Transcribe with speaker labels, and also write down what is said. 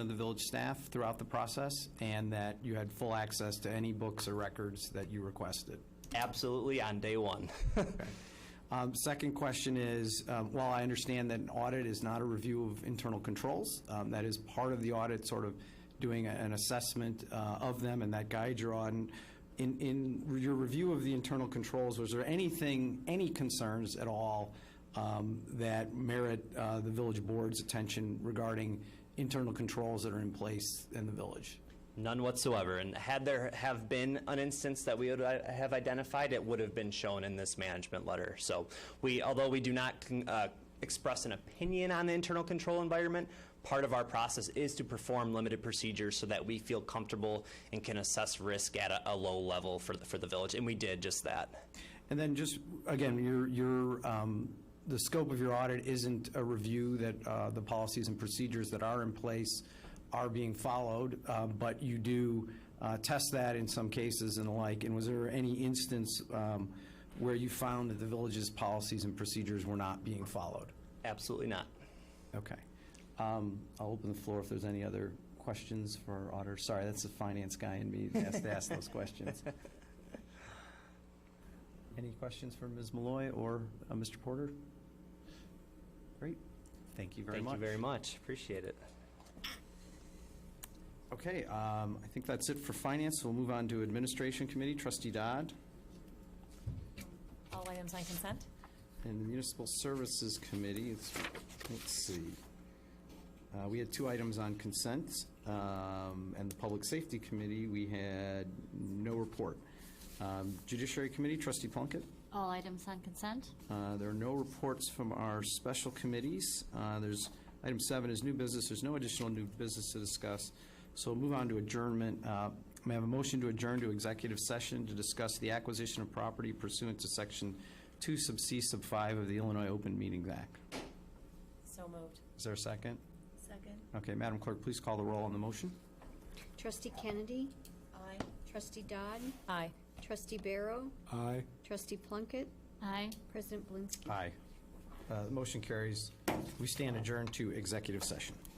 Speaker 1: of the village staff throughout the process, and that you had full access to any books or records that you requested.
Speaker 2: Absolutely on day one.
Speaker 1: Um, Second question is, um, while I understand that an audit is not a review of internal controls, um, that is part of the audit, sort of doing a- an assessment uh, of them and that guide you're on, in, in your review of the internal controls, was there anything, any concerns at all um, that merit uh, the village board's attention regarding internal controls that are in place in the village?
Speaker 2: None whatsoever. And had there have been an instance that we would i- have identified, it would have been shown in this management letter. So we, although we do not con- uh, express an opinion on the internal control environment, part of our process is to perform limited procedures so that we feel comfortable and can assess risk at a, a low level for the, for the village. And we did just that.
Speaker 1: And then just, again, your, your, um, the scope of your audit isn't a review that uh, the policies and procedures that are in place are being followed, uh, but you do uh, test that in some cases and the like. And was there any instance um, where you found that the village's policies and procedures were not being followed?
Speaker 2: Absolutely not.
Speaker 1: Okay. Um, I'll open the floor if there's any other questions for our auditor. Sorry, that's the finance guy in me that has to ask those questions. Any questions for Ms. Malloy or uh, Mr. Porter? Great. Thank you very
Speaker 2: Thank
Speaker 1: much.
Speaker 2: you very much. Appreciate it.
Speaker 1: Okay, um, I think that's it for finance. We'll move on to Administration Committee, Trustee Dodd,
Speaker 3: All items on consent?
Speaker 1: and the Municipal Services Committee. It's- Let's see. Uh, We had two items on consent, um, and the Public Safety Committee, we had no report. Um, Judiciary Committee, Trustee Plunkett,
Speaker 4: All items on consent?
Speaker 1: uh, there are no reports from our special committees. Uh, There's, item seven is new business, there's no additional new business to discuss, so we'll move on to adjournment. Uh, May I have a motion to adjourn to executive session to discuss the acquisition of property pursuant to Section 2 sub C sub 5 of the Illinois Open Meetings Act?
Speaker 3: So moved.
Speaker 1: Is there a second?
Speaker 3: Second.
Speaker 1: Okay, Madam Clerk, please call the roll on the motion.
Speaker 4: Trustee Kennedy?
Speaker 3: Aye.
Speaker 4: Trustee Dodd?
Speaker 3: Aye.
Speaker 4: Trustee Barrow?
Speaker 5: Aye.
Speaker 4: Trustee Plunkett? Aye. President Blinsky?
Speaker 1: Aye. Uh, The motion carries. We stand adjourned to executive session.